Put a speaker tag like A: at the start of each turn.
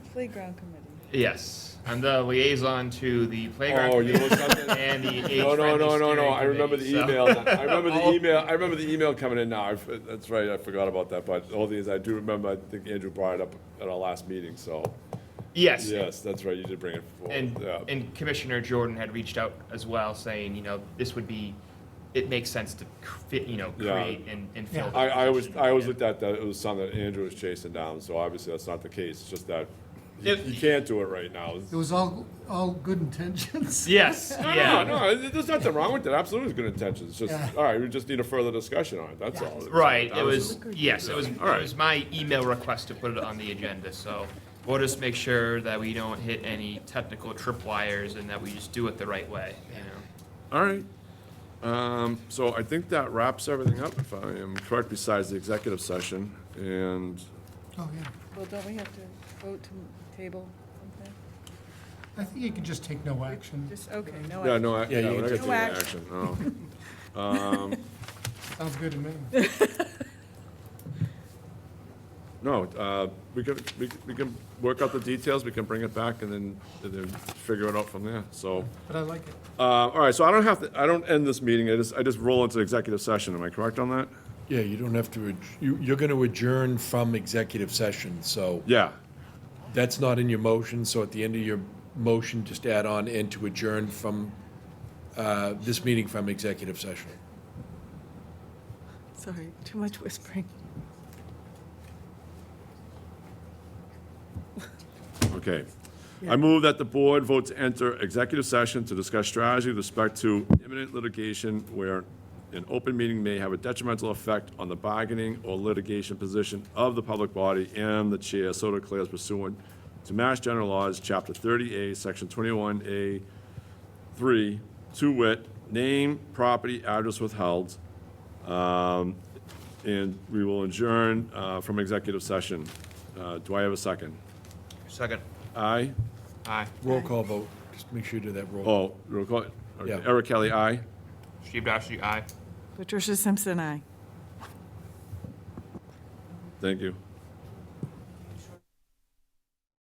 A: Playground committee.
B: Yes, I'm the liaison to the playground
C: Oh, you know
B: committee
C: something?
B: and the age-friendly
C: No, no, no, no, no, I remember the
B: steering
C: email,
B: committee, so-
C: I remember the
B: All-
C: email, I remember the email coming in now, I f- that's right, I forgot about that, but the whole thing is, I do remember, I think Andrew brought it up at our last meeting, so,
B: Yes,
C: yes, that's right, you did bring it
B: and,
C: forward, yeah.
B: and Commissioner Jordan had reached out as well, saying, you know, this would be, it makes sense to fit, you know,
C: Yeah.
B: create and, and fill. the
C: I, I always,
B: position.
C: I always
B: Yeah.
C: looked at that, it was something that Andrew was chasing down, so obviously that's not the case, it's just that you
B: If-
C: you can't do it right now.
D: It was all, all good intentions.
B: Yes,
C: No,
B: yeah,
C: no, there's nothing wrong with it, absolutely it's good intentions, it's
D: Yeah.
C: just, all right, we just need a further discussion on it, that's all.
B: right, it
C: That
B: was, yes, it was, it
C: All right.
B: was my email request to put it on the agenda, so we'll just make sure that we don't hit any technical tripwires and that we just do it the right way, you know?
C: All right. Um, So I think that wraps everything up, if I am correct, besides the executive session. And
D: Oh, yeah.
A: Well, don't we have to vote to table something?
D: I think you could just take no action.
A: Just, okay, no.
C: Yeah,
A: action.
C: no, I-
E: Yeah,
C: yeah,
E: you
C: we're not
E: can
C: gonna
A: take
C: take any
A: it.
C: action, no. Um,
D: Sounds good to me.
C: No, uh, we can, we can- we can work out the details, we can bring it back and then, and then figure it out from there, so.
D: But I like it.
C: uh, All right, so I don't have to, I don't end this meeting, I just, I just roll into executive session, am I correct on that?
E: Yeah, you don't have to, adj- you, you're going to adjourn from executive session, so
C: Yeah,
E: that's not in your motion, so at the end of your motion, just add on and to adjourn from, uh, this meeting from executive session.
A: Sorry, too much whispering.
C: okay. I move that the board vote to enter executive session to discuss strategy with respect to imminent litigation where an open meeting may have a detrimental effect on the bargaining or litigation position of the public body and the chair so declares pursuant to Mass General Laws, Chapter 30A, Section 21A, 3, to wit, name, property, address withheld. Um, And we will adjourn uh, from executive session. Uh, Do I have a second?
B: Second.
C: Aye?
B: Aye.
E: Roll call vote, just make sure you do that roll.
C: Oh, roll call. Okay.
E: Yeah.
C: Eric Kelly, aye.
B: Steve Dashy, aye.
A: Patricia Simpson, aye.
C: Thank you.